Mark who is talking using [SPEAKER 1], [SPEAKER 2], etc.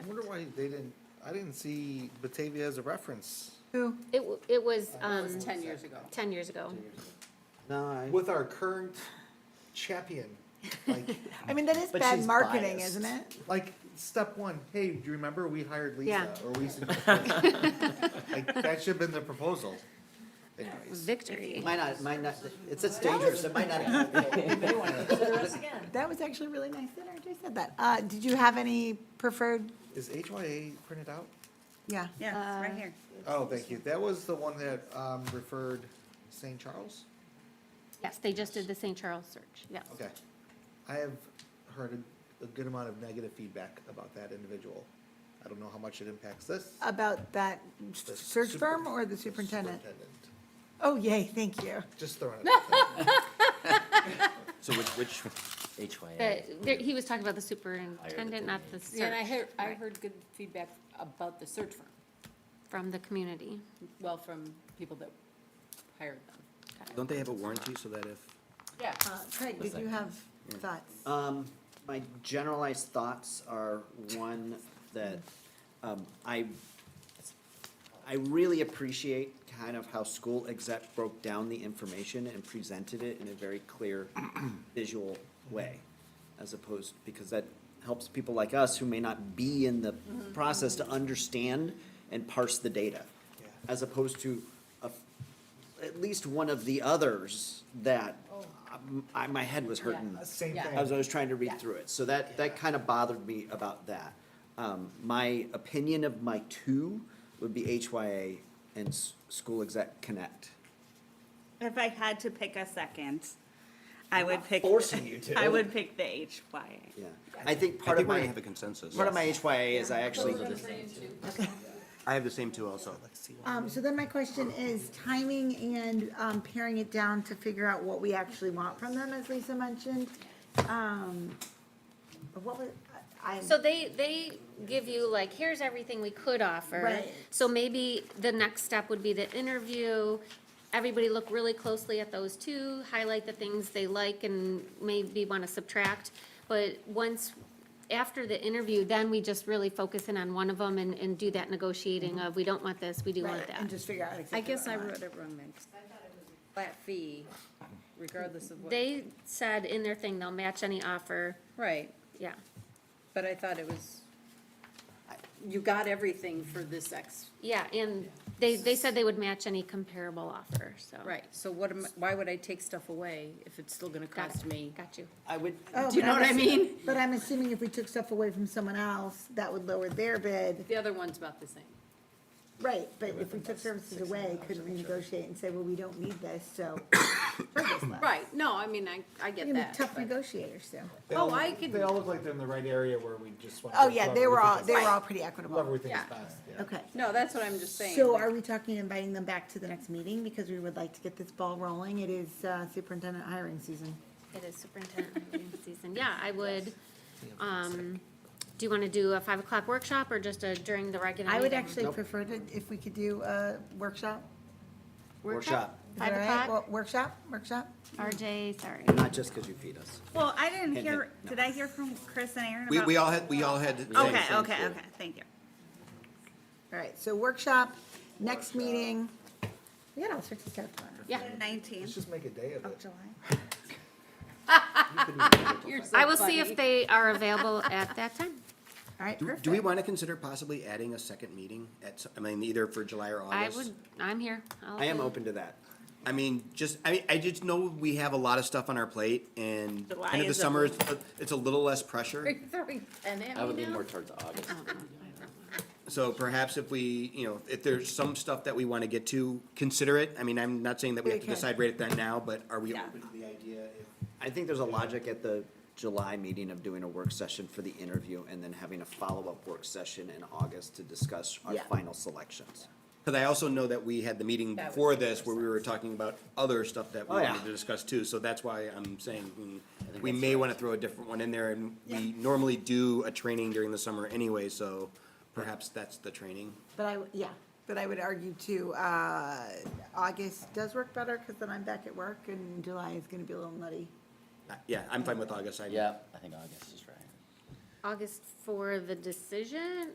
[SPEAKER 1] wonder why they didn't, I didn't see Batavia as a reference.
[SPEAKER 2] Who?
[SPEAKER 3] It, w- it was, um,
[SPEAKER 2] was ten years ago.
[SPEAKER 3] ten years ago.
[SPEAKER 1] No, I.
[SPEAKER 4] with our current champion. Like,
[SPEAKER 2] I mean, that is
[SPEAKER 5] But
[SPEAKER 2] bad
[SPEAKER 5] she's
[SPEAKER 2] marketing,
[SPEAKER 5] biased.
[SPEAKER 2] isn't it?
[SPEAKER 4] like step one, hey, do you remember we hired Lisa?
[SPEAKER 3] Yeah.
[SPEAKER 4] Or we suggested- Like, that should have been the proposal. Anyways,
[SPEAKER 3] Victory.
[SPEAKER 5] Might not, might not, it's, it's dangerous, it might not.
[SPEAKER 2] That was actually really nice that RJ said that. Uh, did you have any preferred?
[SPEAKER 4] is HYA printed out?
[SPEAKER 2] Yeah.
[SPEAKER 6] Yeah, it's right here.
[SPEAKER 4] Oh, thank you. That was the one that um, referred St. Charles?
[SPEAKER 3] Yes, they just did the St. Charles search, yes.
[SPEAKER 4] Okay. I have heard a, a good amount of negative feedback about that individual. I don't know how much it impacts this.
[SPEAKER 2] About that s-
[SPEAKER 4] the
[SPEAKER 2] search
[SPEAKER 4] super-
[SPEAKER 2] firm or the
[SPEAKER 4] the
[SPEAKER 2] superintendent?
[SPEAKER 4] superintendent.
[SPEAKER 2] Oh, yay, thank you.
[SPEAKER 4] Just throwing it out there.
[SPEAKER 5] So which, which
[SPEAKER 3] But there, he was talking about the superintendent, not the
[SPEAKER 7] Yeah, and I
[SPEAKER 3] search
[SPEAKER 7] heard, I heard good feedback about the search firm,
[SPEAKER 3] from the community.
[SPEAKER 7] well, from people that hired them.
[SPEAKER 8] Don't they have a warranty so that if?
[SPEAKER 7] Yeah.
[SPEAKER 2] Uh, Craig, did you have thoughts?
[SPEAKER 5] Um, my generalized thoughts are one that, um, I, I really appreciate kind of how school exec broke down the information and presented it in a very clear visual way. As opposed, because that helps people like us who may not be in the process to understand and parse the data. As opposed to a at least one of the others that um, I, my head was hurting
[SPEAKER 4] Uh, Same
[SPEAKER 7] Yeah.
[SPEAKER 4] thing.
[SPEAKER 5] as I was trying to read
[SPEAKER 7] Yeah.
[SPEAKER 5] through it. So that, that kind of bothered me about that. Um, my opinion of my two would be HYA and S- School Exec Connect.
[SPEAKER 6] If I had to pick a second, I would pick.
[SPEAKER 5] forcing you to.
[SPEAKER 6] I would pick the HYA.
[SPEAKER 5] Yeah, I think
[SPEAKER 8] I
[SPEAKER 5] part of
[SPEAKER 8] think we're
[SPEAKER 5] my,
[SPEAKER 8] gonna have a consensus.
[SPEAKER 5] part of my HYA is I actually,
[SPEAKER 8] I have the same two also.
[SPEAKER 2] Um, so then my question is timing and, um, paring it down to figure out what we actually want from them, as Lisa mentioned. Um, what was, I,
[SPEAKER 3] So they, they give you like, here's everything we could offer.
[SPEAKER 2] Right.
[SPEAKER 3] So maybe the next step would be the interview. Everybody look really closely at those two, highlight the things they like and maybe want to subtract. But once, after the interview, then we just really focus in on one of them and, and do that negotiating of, we don't want this, we do want
[SPEAKER 2] right,
[SPEAKER 3] that.
[SPEAKER 2] and just figure out exactly.
[SPEAKER 7] I guess
[SPEAKER 2] what
[SPEAKER 7] I
[SPEAKER 2] want.
[SPEAKER 7] wrote it wrong then, 'cause I thought it was a flat fee regardless of what.
[SPEAKER 3] They said in their thing, they'll match any offer,
[SPEAKER 7] Right,
[SPEAKER 3] yeah.
[SPEAKER 7] but I thought it was, I- you got everything for this X,
[SPEAKER 3] Yeah, and they, they said they would match any comparable offer, so.
[SPEAKER 7] right, so what am, why would I take stuff away if it's still gonna
[SPEAKER 3] Got
[SPEAKER 7] cost
[SPEAKER 3] it.
[SPEAKER 7] me?
[SPEAKER 3] Got you.
[SPEAKER 5] I would,
[SPEAKER 2] Oh,
[SPEAKER 7] Do you
[SPEAKER 2] but
[SPEAKER 7] know
[SPEAKER 2] I'm
[SPEAKER 7] what I
[SPEAKER 2] assu-
[SPEAKER 7] mean?
[SPEAKER 2] But I'm assuming if we took stuff away from someone else, that would lower their bid.
[SPEAKER 7] The other one's about the same.
[SPEAKER 2] Right, but if we took services away, couldn't we negotiate and say, well, we don't need this, so.
[SPEAKER 7] Right, no, I mean, I, I
[SPEAKER 2] We're
[SPEAKER 7] get
[SPEAKER 2] gonna be
[SPEAKER 7] that.
[SPEAKER 2] tough
[SPEAKER 7] but-
[SPEAKER 2] negotiators, so.
[SPEAKER 4] They
[SPEAKER 7] Oh,
[SPEAKER 4] all
[SPEAKER 7] I
[SPEAKER 4] look-
[SPEAKER 7] can-
[SPEAKER 4] They all look like they're in the right area where we just want.
[SPEAKER 2] Oh, yeah, they were all, they were all
[SPEAKER 7] all
[SPEAKER 2] pretty
[SPEAKER 4] Whoever we
[SPEAKER 2] equitable.
[SPEAKER 4] think is
[SPEAKER 7] Yeah.
[SPEAKER 4] best, yeah.
[SPEAKER 2] Okay.
[SPEAKER 7] No, that's what I'm just saying.
[SPEAKER 2] So
[SPEAKER 7] like-
[SPEAKER 2] are we talking inviting them back to the next meeting because we would like to get this ball rolling? It is uh, superintendent hiring season.
[SPEAKER 3] It is superintendent hiring season. Yeah, I would, um, do you want to do a five o'clock workshop or just a during the regular
[SPEAKER 2] I would
[SPEAKER 3] meeting?
[SPEAKER 2] actually prefer to, if we could do a workshop.
[SPEAKER 5] workshop,
[SPEAKER 2] Is that
[SPEAKER 3] Five
[SPEAKER 2] all right?
[SPEAKER 3] o'clock?
[SPEAKER 2] Well, Workshop, workshop?
[SPEAKER 3] RJ, sorry.
[SPEAKER 5] not just because you feed us.
[SPEAKER 6] Well, I didn't
[SPEAKER 5] Hint,
[SPEAKER 6] hear,
[SPEAKER 5] hint.
[SPEAKER 6] did I hear from Chris and Aaron
[SPEAKER 8] We,
[SPEAKER 6] about?
[SPEAKER 8] we all had, we all had. the same
[SPEAKER 6] Okay,
[SPEAKER 8] thing,
[SPEAKER 6] okay,
[SPEAKER 8] too.
[SPEAKER 6] okay, thank you.
[SPEAKER 2] All right, so workshop, next meeting. We got all sorts of stuff going on.
[SPEAKER 3] Yeah,
[SPEAKER 4] Let's
[SPEAKER 6] Nineteenth
[SPEAKER 4] just make a day of
[SPEAKER 6] of
[SPEAKER 4] it.
[SPEAKER 6] July.
[SPEAKER 7] You're so
[SPEAKER 3] I will see
[SPEAKER 7] funny.
[SPEAKER 3] if they are available at that time.
[SPEAKER 2] All right,
[SPEAKER 8] Do,
[SPEAKER 2] perfect.
[SPEAKER 8] do we want to consider possibly adding a second meeting at, s- I mean, either for July or
[SPEAKER 3] I
[SPEAKER 8] August?
[SPEAKER 3] would, I'm here. I'll
[SPEAKER 5] I am
[SPEAKER 3] do-
[SPEAKER 5] open to that.
[SPEAKER 8] I mean, just, I, I just know we have a lot of stuff on our plate and
[SPEAKER 6] July
[SPEAKER 8] end of the
[SPEAKER 6] is a-
[SPEAKER 8] summer, it's, it's a little less pressure.
[SPEAKER 7] Are you throwing pen at
[SPEAKER 5] I would
[SPEAKER 7] me
[SPEAKER 5] lean
[SPEAKER 7] now?
[SPEAKER 5] more towards August.
[SPEAKER 8] So perhaps if we, you know, if there's some stuff that we want to get to, consider it. I mean, I'm not saying that we have to
[SPEAKER 2] Okay.
[SPEAKER 8] decide right then now, but are we
[SPEAKER 6] Yeah.
[SPEAKER 8] open to the idea? if-
[SPEAKER 5] I think there's a logic at the July meeting of doing a work session for the interview and then having a follow-up work session in August to discuss our
[SPEAKER 2] Yeah.
[SPEAKER 5] final selections.
[SPEAKER 8] Cause I also know that we had the meeting
[SPEAKER 7] That would
[SPEAKER 8] before
[SPEAKER 7] make more
[SPEAKER 8] this where we were talking about other stuff that we
[SPEAKER 5] Oh, yeah.
[SPEAKER 8] wanted to discuss too, so that's why I'm saying mm,
[SPEAKER 5] think
[SPEAKER 8] we
[SPEAKER 5] that's
[SPEAKER 8] may
[SPEAKER 5] right.
[SPEAKER 8] wanna throw a different one in there and we normally do a training during the summer anyway, so perhaps that's the training.
[SPEAKER 2] But I, yeah, but I would argue too, uh, August does work better because then I'm back at work and July is going to be a little nutty.
[SPEAKER 8] Uh, Yeah, I'm fine with August. I-
[SPEAKER 5] I think August is right.
[SPEAKER 3] August for the decision